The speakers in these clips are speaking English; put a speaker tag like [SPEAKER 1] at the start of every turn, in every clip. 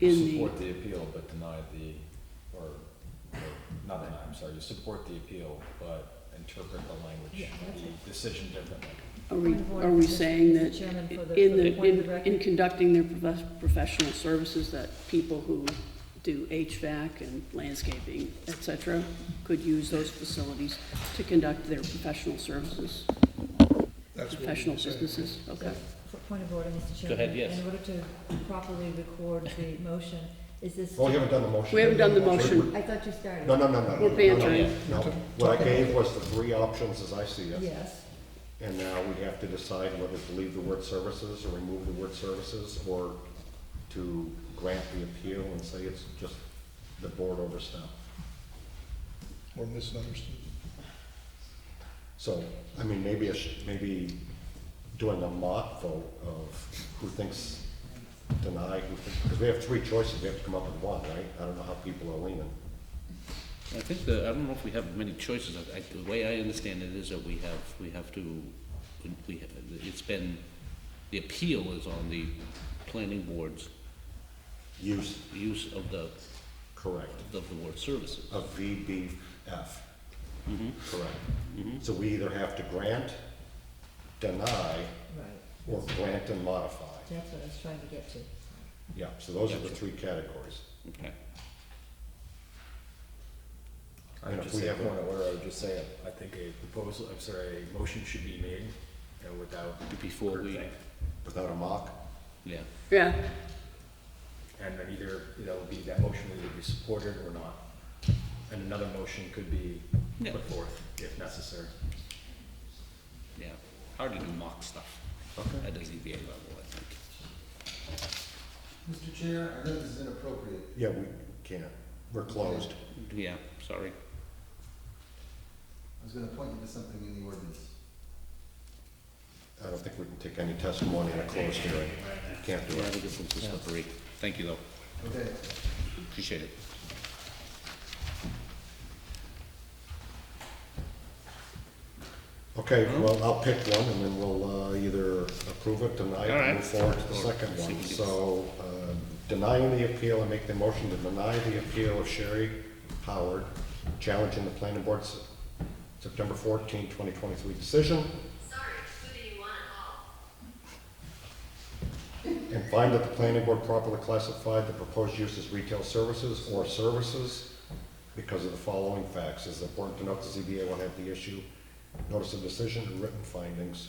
[SPEAKER 1] in the.
[SPEAKER 2] support the appeal but deny the, or, or not deny, I'm sorry, you support the appeal but interpret the language,
[SPEAKER 3] Yeah, that's it.
[SPEAKER 2] the decision differently.
[SPEAKER 1] Are we,
[SPEAKER 3] Point of order,
[SPEAKER 1] are we
[SPEAKER 3] Mr.
[SPEAKER 1] saying that
[SPEAKER 3] Chairman, for the-
[SPEAKER 1] in
[SPEAKER 3] for the
[SPEAKER 1] the,
[SPEAKER 3] point of
[SPEAKER 1] in,
[SPEAKER 3] record?
[SPEAKER 1] in conducting their prof- professional services, that people who do HVAC and landscaping, et cetera, could use those facilities to conduct their professional services,
[SPEAKER 4] That's what we
[SPEAKER 1] professional
[SPEAKER 4] were saying.
[SPEAKER 1] businesses? Okay.
[SPEAKER 3] P- Point of order, Mr. Chairman.
[SPEAKER 5] ahead, yes.
[SPEAKER 3] In order to properly record the motion, is this?
[SPEAKER 6] Well, we haven't done the motion.
[SPEAKER 1] We haven't done the motion.
[SPEAKER 3] I thought you started.
[SPEAKER 6] No, no, no, no. no,
[SPEAKER 1] We're
[SPEAKER 6] no, no,
[SPEAKER 1] bantering.
[SPEAKER 6] No, what I gave was the three options as I see it.
[SPEAKER 3] Yes,
[SPEAKER 6] And now we have to decide whether to leave the word services or remove the word services or to grant the appeal and say it's just the board overstepped.
[SPEAKER 4] Or misunderstood.
[SPEAKER 6] So, I mean, maybe, a sh- maybe doing a mock vote of who thinks deny, who thinks, because we have three choices, we have to come up with one, right? I don't know how people are leaning.
[SPEAKER 5] I think the, I don't know if we have many choices. I, I, the way I understand it is that we have, we have to, we have, it's been, the appeal is on the planning board's
[SPEAKER 6] Use,
[SPEAKER 5] use of the,
[SPEAKER 6] correct,
[SPEAKER 5] of the word services.
[SPEAKER 6] of VBF. Correct. So we either have to grant, deny,
[SPEAKER 3] right,
[SPEAKER 6] or grant and modify.
[SPEAKER 3] that's what I was trying to get to.
[SPEAKER 6] Yeah, so those are the three categories.
[SPEAKER 5] Okay.
[SPEAKER 2] I
[SPEAKER 6] And
[SPEAKER 2] would
[SPEAKER 6] if
[SPEAKER 2] just
[SPEAKER 6] we
[SPEAKER 2] say,
[SPEAKER 6] have
[SPEAKER 2] point
[SPEAKER 6] one-
[SPEAKER 2] of order, I would just say, I think a proposal, I'm sorry, a motion should be made and without.
[SPEAKER 5] Before we-
[SPEAKER 2] groupthink.
[SPEAKER 6] Without a mock,
[SPEAKER 5] Yeah,
[SPEAKER 1] Yeah,
[SPEAKER 2] And then either, you know, be that motion will either be supported or not. And another motion could be
[SPEAKER 5] Yeah.
[SPEAKER 2] put forth if necessary.
[SPEAKER 5] yeah. Hard to do mock stuff at the ZBA level, I think.
[SPEAKER 7] Mr. Chair, I know this is inappropriate.
[SPEAKER 6] yeah, we can't, we're closed.
[SPEAKER 5] Yeah, sorry.
[SPEAKER 7] I was gonna point you to something in the ordinance.
[SPEAKER 6] I don't think we can take any testimony in a closed hearing. Can't do
[SPEAKER 5] Yeah, I
[SPEAKER 6] it.
[SPEAKER 5] think it's a little slippery. Thank you, though.
[SPEAKER 7] Okay,
[SPEAKER 5] Appreciate it.
[SPEAKER 6] Okay, well, I'll pick one and then we'll uh, either approve it, deny it,
[SPEAKER 5] All right.
[SPEAKER 6] and move forward to the
[SPEAKER 5] Or
[SPEAKER 6] second
[SPEAKER 5] see
[SPEAKER 6] one.
[SPEAKER 5] what it is.
[SPEAKER 6] So uh, denying the appeal, I make the motion to deny the appeal of Sherry Howard challenging the planning board's September 14, 2023 decision
[SPEAKER 8] Sorry, who do you want to call?
[SPEAKER 6] and find that the planning board properly classified the proposed use as retail services or services because of the following facts. It's important to note the ZBA will have the issue, notice of decision, and written findings.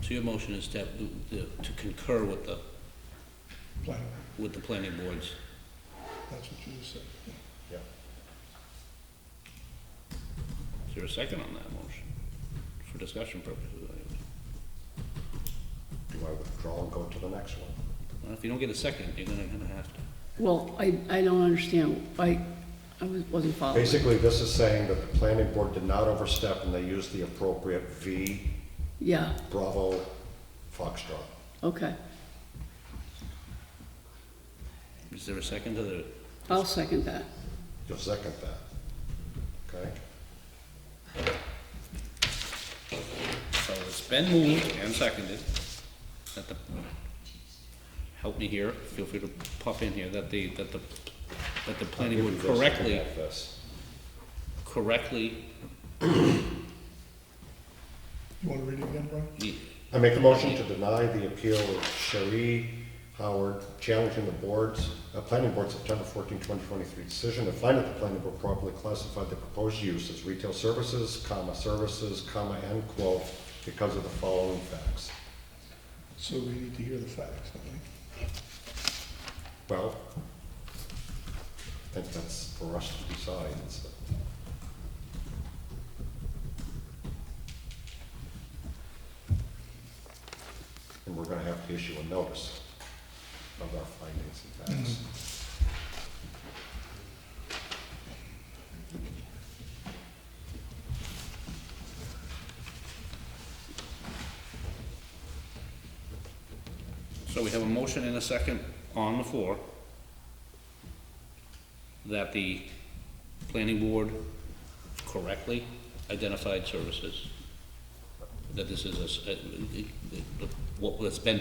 [SPEAKER 5] So your motion is to, have the- the- to concur with the,
[SPEAKER 4] Planner,
[SPEAKER 5] with the planning boards.
[SPEAKER 4] that's what you said. yeah.
[SPEAKER 6] Yeah.
[SPEAKER 5] Is there a second on that motion? For discussion purposes, I guess.
[SPEAKER 6] Do I withdraw and go to the next one?
[SPEAKER 5] Well, if you don't get a second, you're gonna, gonna have to.
[SPEAKER 1] well, I, I don't understand, I, I was- wasn't following.
[SPEAKER 6] Basically, this is saying that the planning board did not overstep and they used the appropriate V
[SPEAKER 1] Yeah,
[SPEAKER 6] Bravo Foxtrot.
[SPEAKER 1] okay,
[SPEAKER 5] Is there a second to the,
[SPEAKER 1] I'll second that.
[SPEAKER 6] You'll second that, okay?
[SPEAKER 5] so it's been moved and seconded, that the, help me here, feel free to pop in here, that the, that the, that the planning board correctly,
[SPEAKER 6] Have this.
[SPEAKER 5] correctly,
[SPEAKER 4] You want to read it again, Brian?
[SPEAKER 6] I make a motion to deny the appeal of Cherie Howard challenging the board's, uh, planning board September 14, 2023 decision to find that the planning board properly classified the proposed use as retail services, comma, services, comma, end quote, because of the following facts.
[SPEAKER 4] So we need to hear the facts, I think.
[SPEAKER 6] Well, I think that's for us to decide, so. And we're gonna have to issue a notice of our findings and facts.
[SPEAKER 5] so we have a motion and a second on the floor that the planning board correctly identified services, that this is a, s- a- a- a- what has been